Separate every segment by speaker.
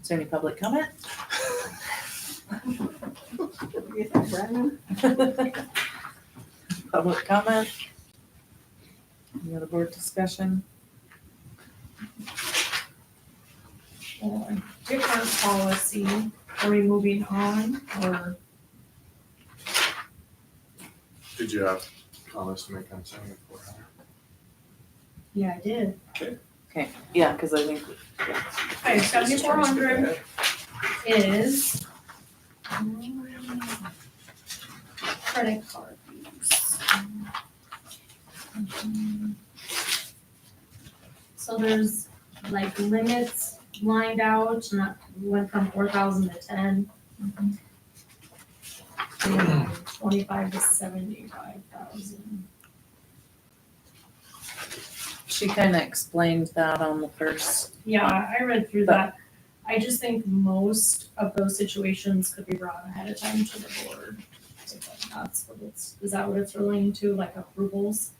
Speaker 1: Is there any public comment? Public comment? Any other board discussion?
Speaker 2: or different policy, are we moving on, or,
Speaker 3: Did you have comments to make on seven four hundred?
Speaker 2: yeah, I did.
Speaker 1: Yeah, because I think,
Speaker 2: Okay, seventy-four hundred is. Credit card use. So there's like limits lined out, not, went from four thousand to ten. Mm-hmm. And Twenty-five to seventy-five thousand.
Speaker 1: she kind of explained that on the first,
Speaker 2: Yeah, I read through
Speaker 1: But-
Speaker 2: that. I just think most of those situations could be brought ahead of time to the board. If That's what it's, is that what it's relating to, like approvals?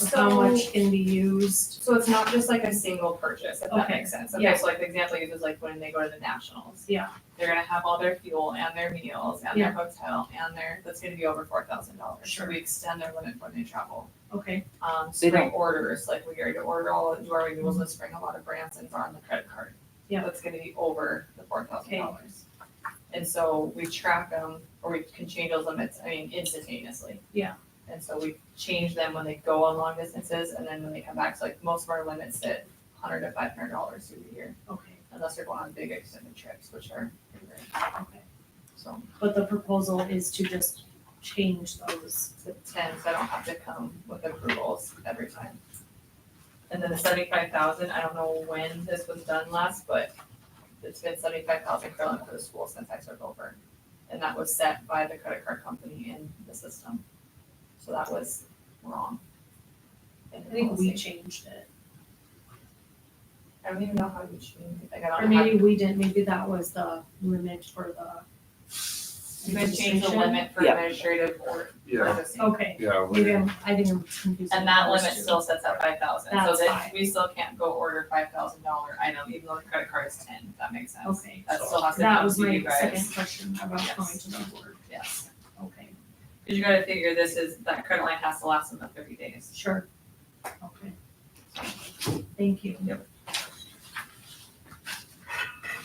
Speaker 2: Or how
Speaker 4: So-
Speaker 2: much can be used?
Speaker 4: So it's not just like a single purchase, if that
Speaker 2: Okay.
Speaker 4: makes sense.
Speaker 2: Yeah.
Speaker 4: Okay, so like the example you use is like when they go to the nationals.
Speaker 2: Yeah.
Speaker 4: They're gonna have all their fuel and their meals and
Speaker 2: Yeah.
Speaker 4: their hotel and their, that's gonna be over four thousand dollars.
Speaker 2: Sure.
Speaker 4: We extend their limit when they travel.
Speaker 2: Okay,
Speaker 4: Um,
Speaker 1: They
Speaker 4: spring orders, like we already order all, do our renewals this spring, a lot of Branson's are on the credit card.
Speaker 2: Mm-hmm. Yeah.
Speaker 4: That's gonna be over the four thousand dollars. And so we track them, or we can change those limits, I mean instantaneously.
Speaker 2: Yeah.
Speaker 4: And so we change them when they go on long distances, and then when they come back, so like most of our limits sit hundred to five hundred dollars through the year,
Speaker 2: okay,
Speaker 4: unless they're going on big extended trips, which are, pretty rare.
Speaker 2: okay.
Speaker 4: so,
Speaker 2: But the proposal is to just change those.
Speaker 4: the ten, so I don't have to come with approvals every time. And then the seventy-five thousand, I don't know when this was done last, but it's been seventy-five thousand per limit for the school since I took over. And that was set by the credit card company in the system, so that was wrong. in the
Speaker 2: I think we
Speaker 4: policy.
Speaker 2: changed it.
Speaker 4: I don't even know how you changed, like, I
Speaker 2: Or
Speaker 4: don't have.
Speaker 2: maybe we didn't, maybe that was the limit for the.
Speaker 4: You can change the
Speaker 2: registration.
Speaker 4: limit for
Speaker 1: Yeah.
Speaker 4: administrative or
Speaker 3: Yeah,
Speaker 4: purchasing.
Speaker 2: Okay,
Speaker 3: yeah, we-
Speaker 2: maybe I'm, I think I'm confusing.
Speaker 4: And that
Speaker 2: those
Speaker 4: limit
Speaker 2: two.
Speaker 4: still sets at five thousand, so
Speaker 2: That's
Speaker 4: that
Speaker 2: fine.
Speaker 4: we still can't go order five thousand dollar item, even though the credit card is ten, if that makes sense.
Speaker 2: Okay.
Speaker 4: That still has to
Speaker 2: That
Speaker 4: come
Speaker 2: was
Speaker 4: to you
Speaker 2: my
Speaker 4: guys,
Speaker 2: second question about
Speaker 4: Yes.
Speaker 2: going to the board.
Speaker 4: yes,
Speaker 2: Okay,
Speaker 4: cause you gotta figure this is, that credit line has to last them the thirty days.
Speaker 2: sure. Okay. Thank you.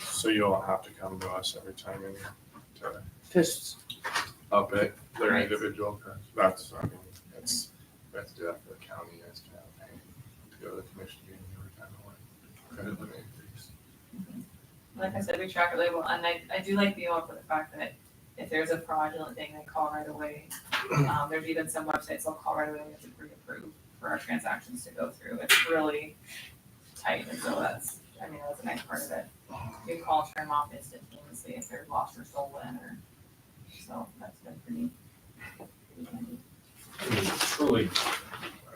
Speaker 3: so you don't have to come to us every time you need to
Speaker 1: first
Speaker 3: up it, their
Speaker 4: Right.
Speaker 3: individual, cars. that's, I mean, that's, that's do that for the county, that's to have pay to go to the commission meeting every time I want. Credit limit increase.
Speaker 4: Like I said, we track it label, and I, I do like the one for the fact that if there's a fraudulent thing, they call right away. Um, there's even some websites they'll call right away, we have to pre-approve for our transactions to go through, it's really tight, and so that's, I mean, that's a nice part of it. you can call turn them off instantaneously if they're lost or stolen or, so that's been pretty. pretty handy.
Speaker 5: I mean, truly,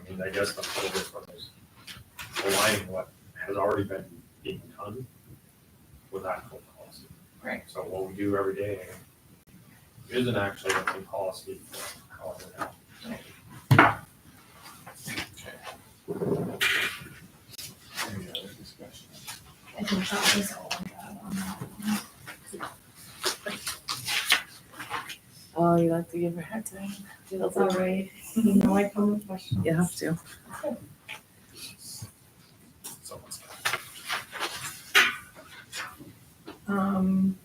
Speaker 5: I mean, I guess the whole difference is aligning what has already been being done with actual policy.
Speaker 4: Right.
Speaker 5: So what we do every day isn't actually a new policy for however now.
Speaker 3: Any other discussion?
Speaker 2: I think that was all I got on that one.
Speaker 1: Oh, you like to give her a hard time.
Speaker 2: That's all right. You know, I come with questions.
Speaker 1: You have to.
Speaker 3: Someone's got
Speaker 2: Um,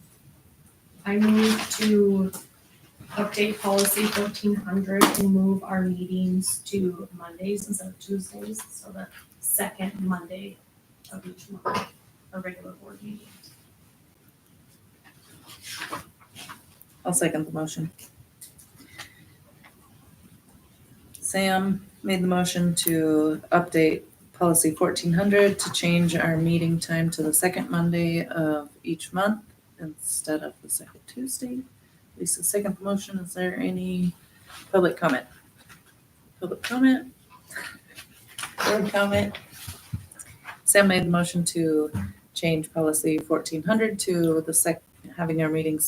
Speaker 2: I move to update policy fourteen hundred and move our meetings to Mondays instead of Tuesdays, so the second Monday of each month, a regular board meeting.
Speaker 1: I'll second the motion. Sam made the motion to update policy fourteen hundred to change our meeting time to the second Monday of each month instead of the second Tuesday. Lisa, second the motion. Is there any public comment? Public comment? Board comment? Sam made the motion to change policy fourteen hundred to the sec, having our meetings